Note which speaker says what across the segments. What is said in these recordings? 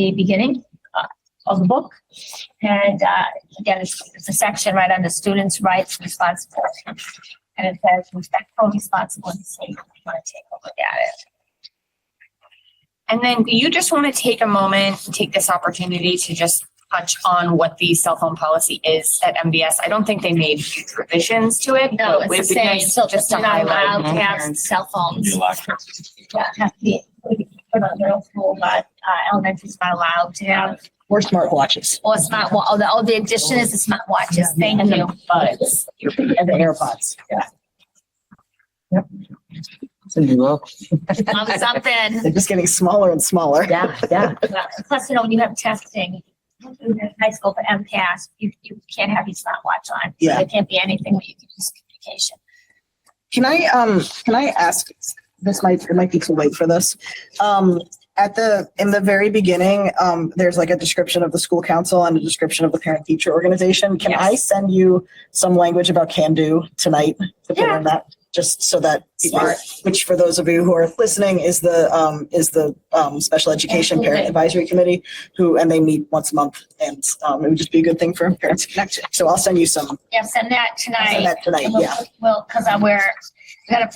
Speaker 1: the beginning uh, of the book. And uh, again, it's, it's a section right under students' rights and responsibilities. And it says respectful responsibility, so you want to take a look at it.
Speaker 2: And then do you just want to take a moment, take this opportunity to just touch on what the cell phone policy is at MBS? I don't think they made huge revisions to it.
Speaker 1: No, it's
Speaker 2: but
Speaker 1: the
Speaker 2: it would be
Speaker 1: same,
Speaker 2: nice
Speaker 1: so
Speaker 2: Just to
Speaker 1: they're not allowed
Speaker 2: highlight.
Speaker 1: to have
Speaker 2: parents.
Speaker 1: cell phones.
Speaker 3: You lack it.
Speaker 1: Yeah, have to be, put on middle school, but uh, elementary's not allowed to have,
Speaker 4: Or smartwatches.
Speaker 1: or smart, wa- oh, the, oh, the addition is the smart watches, thank
Speaker 4: And
Speaker 1: you.
Speaker 4: the buds. And the AirPods.
Speaker 5: So you look.
Speaker 1: Love something.
Speaker 4: They're just getting smaller and smaller.
Speaker 5: Yeah, yeah.
Speaker 1: Plus, you know, when you have testing, in high school for MCAS, you, you can't have your smartwatch on. So
Speaker 4: Yeah.
Speaker 1: There can't be anything where you can use communication.
Speaker 4: Can I, um, can I ask, this might, it might be too late for this. Um, at the, in the very beginning, um, there's like a description of the school council and a description of the parent teacher organization. Can I send you some language about can do tonight? to put
Speaker 1: Yeah.
Speaker 4: in that, Just so that, people-
Speaker 1: Smart.
Speaker 4: which for those of you who are listening is the, um, is the, um, Special Education Parent
Speaker 1: Absolutely.
Speaker 4: Advisory Committee, who, and they meet once a month. And, um, it would just be a good thing for parents to connect. to. So I'll send you some,
Speaker 1: Yeah, send that
Speaker 4: I'll send
Speaker 1: tonight.
Speaker 4: that tonight,
Speaker 1: And
Speaker 4: yeah.
Speaker 1: we'll- Well, because I'm where, gotta.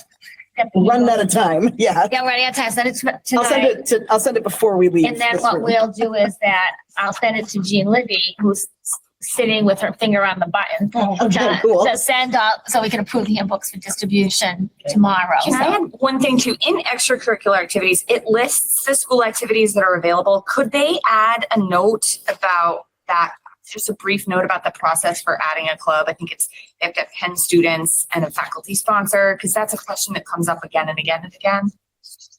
Speaker 4: One at a time, yeah.
Speaker 1: Yeah, right, at time, send it to-
Speaker 4: I'll send
Speaker 1: tonight.
Speaker 4: it to, I'll send it before we leave.
Speaker 1: And then
Speaker 4: this
Speaker 1: what
Speaker 4: room.
Speaker 1: we'll do is that I'll send it to Jean Libby, who's sitting with her finger on the button.
Speaker 4: Okay,
Speaker 1: to-
Speaker 4: cool.
Speaker 1: To send up, so we can approve the handbooks for distribution tomorrow.
Speaker 2: Can I add one thing too? In extracurricular activities, it lists the school activities that are available. Could they add a note about that? Just a brief note about the process for adding a club. I think it's, they have to have ten students and a faculty sponsor, because that's a question that comes up again and again and again.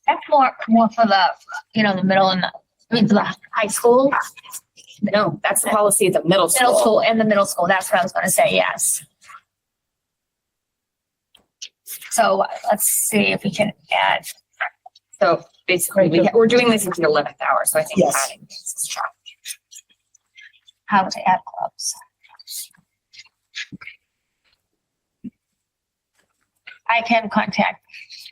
Speaker 1: That's more, more for the, you know, the middle and the, I mean, for the high school,
Speaker 2: No, that's the policy at the middle school.
Speaker 1: middle school and the middle school. That's what I was gonna say, yes. So let's see if we can add,
Speaker 2: So basically, we, we're doing this at the eleventh hour, so I think
Speaker 4: Yes.
Speaker 2: adding this is true.
Speaker 1: how to add clubs. I can contact,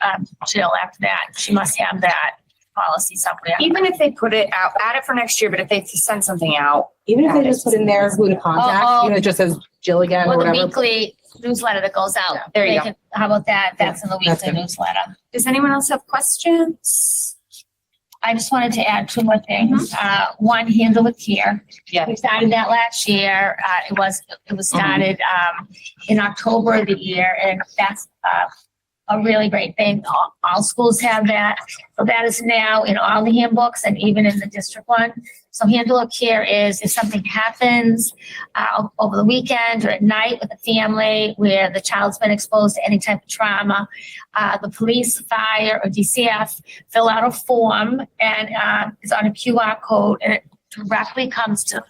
Speaker 1: um, Jill after that. She must have that policy somewhere.
Speaker 2: Even if they put it out, add it for next year, but if they send something out,
Speaker 5: Even if they just put in there who to
Speaker 1: Oh, oh.
Speaker 5: contact, you know, it just says Jill again or
Speaker 1: Well, the
Speaker 5: whatever.
Speaker 1: weekly newsletter that goes out.
Speaker 5: Yeah,
Speaker 2: there you
Speaker 1: They
Speaker 2: go.
Speaker 1: can- How about that? That's in the
Speaker 5: that's
Speaker 1: weekly
Speaker 5: good.
Speaker 1: newsletter.
Speaker 2: does anyone else have questions?
Speaker 1: I just wanted to add two more things. Uh, one, handle with care.
Speaker 2: Yeah.
Speaker 1: We started that last year. Uh, it was, it was started, um, in October of the year and that's, uh, a really great thing. All, all schools have that. So that is now in all the handbooks and even in the district one. So handle of care is if something happens, uh, over the weekend or at night with the family where the child's been exposed to any type of trauma, uh, the police, fire, or DCF fill out a form and uh, it's on a QR code and it directly comes to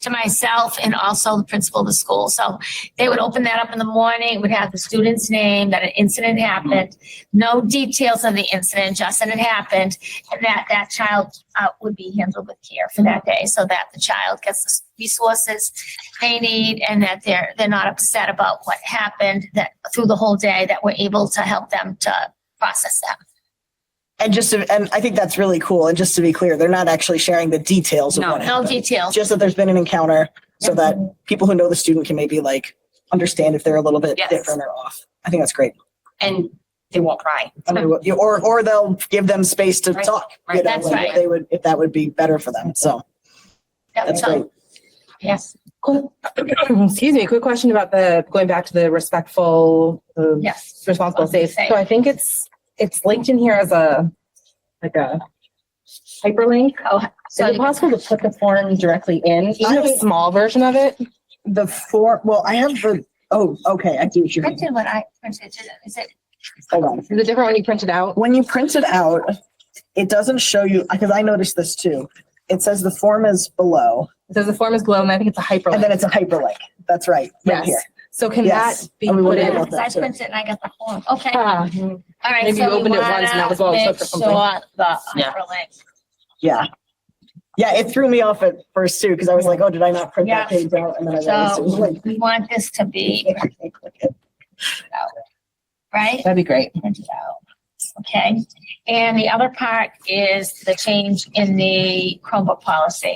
Speaker 1: to myself and also the principal of the school. So they would open that up in the morning, would have the student's name, that an incident happened, no details of the incident, just that it happened, and that that child uh, would be handled with care for that day so that the child gets the resources they need and that they're they're not upset about what happened that through the whole day that we're able to help them to process that.
Speaker 4: And just, to- and I think that's really cool. And just to be clear, they're not actually sharing the details of
Speaker 2: No.
Speaker 4: what
Speaker 1: No
Speaker 4: happened.
Speaker 1: details.
Speaker 4: Just that there's been an encounter so that people who know the student can maybe like understand if they're a little bit
Speaker 2: Yes.
Speaker 4: different or off. I think that's great.
Speaker 2: And they won't cry.
Speaker 4: I mean, what- Or, or they'll give them space to
Speaker 2: Right,
Speaker 4: talk. you
Speaker 2: right.
Speaker 4: know,
Speaker 1: That's
Speaker 4: like,
Speaker 1: right.
Speaker 4: if They would, if that would be better for them. So
Speaker 1: Yeah,
Speaker 4: that's
Speaker 1: so-
Speaker 4: great.
Speaker 1: Yes,
Speaker 5: Excuse me, quick question about the, going back to the respectful, uh,
Speaker 1: yes.
Speaker 5: responsible
Speaker 1: Responsible
Speaker 5: safe. So I think it's, it's linked in here as a, like a hyperlink.
Speaker 1: Oh,
Speaker 5: Is it
Speaker 1: so
Speaker 5: possible to put the form directly in, even if
Speaker 4: I-
Speaker 5: a small version of it?
Speaker 4: The four, well, I have the, oh, okay, I do what
Speaker 1: you
Speaker 4: you mean.
Speaker 1: printed what I printed, is it?
Speaker 4: Hold on.
Speaker 5: Is it different when you print it out?
Speaker 4: When you print it out, it doesn't show you, because I noticed this too. It says the form is below
Speaker 5: It says the form is below and I think it's a
Speaker 4: and then
Speaker 5: hyperlink.
Speaker 4: it's a hyperlink. That's right. right here.
Speaker 5: Yes. So can
Speaker 4: Yes.
Speaker 5: that be
Speaker 4: And we
Speaker 5: put
Speaker 4: would
Speaker 5: in?
Speaker 4: able-
Speaker 1: Yes, I printed and I got the form, okay. All
Speaker 5: Ah,
Speaker 1: right.
Speaker 5: Maybe
Speaker 1: so
Speaker 5: you
Speaker 1: we
Speaker 5: opened it
Speaker 1: wanna
Speaker 5: once and that was what was
Speaker 1: make
Speaker 5: up for something.
Speaker 1: sure The
Speaker 2: Yeah.
Speaker 1: hyperlink,
Speaker 4: Yeah. Yeah, it threw me off at first too, because I was like, oh, did I not print that
Speaker 1: Yeah.
Speaker 4: page out? And then I realized it was
Speaker 1: so
Speaker 4: like.
Speaker 1: we want this to be,
Speaker 4: I can't click it.
Speaker 1: right?
Speaker 5: that'd be great.
Speaker 1: Printed out. okay? And the other part is the change in the Chromebook policy.